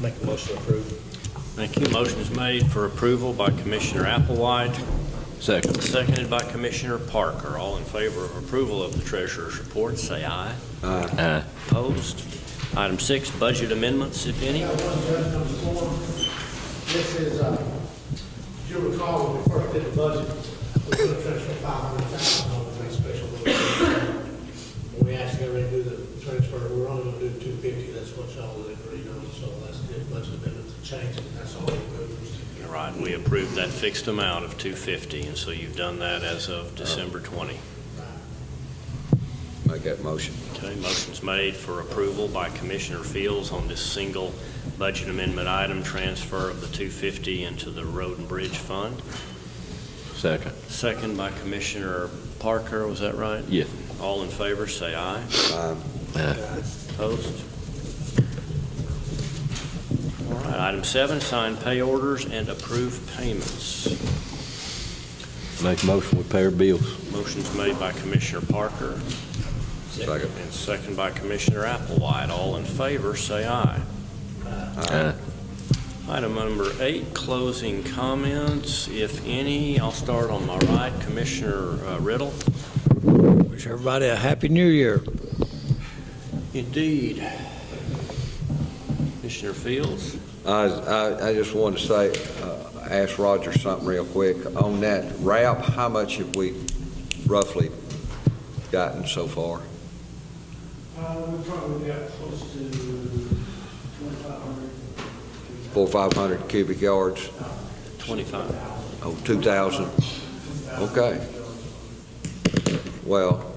Make a motion to approve. Thank you. Motion is made for approval by Commissioner Applewhite, Second. seconded by Commissioner Parker. All in favor of approval of the treasurer's report, say aye. Aye. Opposed? Item six, budget amendments, if any. Got one judge number four. This is, uh, if you recall, when we first did the budget, we put a transfer five hundred thousand dollars in special budget. And we asked everybody to do the transfer, we're only gonna do two fifty, that's what y'all agreed on, so that's the budget amendment to change, and that's all we moved. All right, we approved that fixed amount of 250, and so you've done that as of December 20. Make that motion. Okay, motion's made for approval by Commissioner Fields on this single budget amendment item, transfer of the 250 into the Road and Bridge Fund. Second. Second by Commissioner Parker, was that right? Yes. All in favor, say aye. Opposed? All right, item seven, sign pay orders and approve payments. Make a motion, we pay our bills. Motion's made by Commissioner Parker. Second. And second by Commissioner Applewhite. All in favor, say aye. Aye. Item number eight, closing comments, if any. I'll start on my right, Commissioner uh, Riddle. Wish everybody a happy new year. Indeed. Commissioner Fields. I, I, I just wanted to say, uh, ask Roger something real quick. On that wrap, how much have we roughly gotten so far? Uh, we probably got close to twenty-five hundred. Four, five hundred cubic yards? 25. Oh, two thousand? Okay. Well,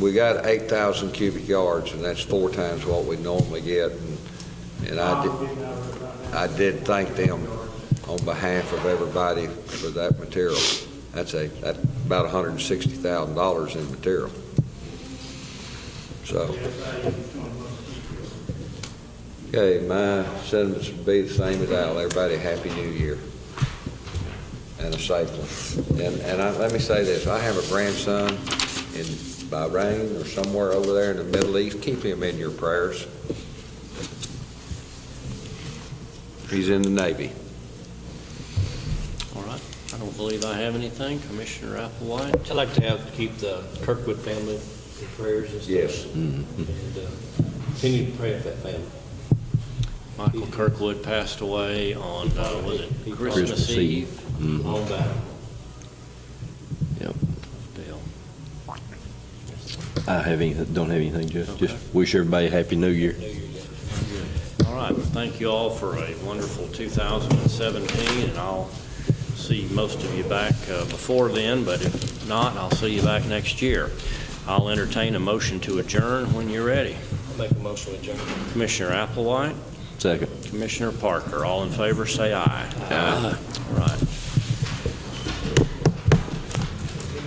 we got eight thousand cubic yards, and that's four times what we normally get. and- And I did, I did thank them on behalf of everybody for that material. That's a, that's about hundred and sixty thousand dollars in material. So. Okay, my sentiments would be the same as Al. Everybody, Happy New Year. And a safe one. And, and I, let me say this, I have a grandson in Bahrain or somewhere over there in the Middle East. Keep him in your prayers. He's in the Navy. All right. I don't believe I have anything. Commissioner Applewhite. I'd like to have, keep the Kirkwood family in prayers and stuff. Yes. Mm-hmm. And uh, continue to pray for that family. Michael Kirkwood passed away on, uh, was it He- he- Christmas Christmas Eve? Eve. All that. Bill. I have anything, don't have anything, Jeff. Okay. Just wish everybody a happy new year. All right, well, thank you all for a wonderful 2017, and I'll see most of you back uh, before then, but if not, I'll see you back next year. I'll entertain a motion to adjourn when you're ready. Make a motion with John. Commissioner Applewhite, Second. Commissioner Parker, all in favor, say aye. Aye. All right.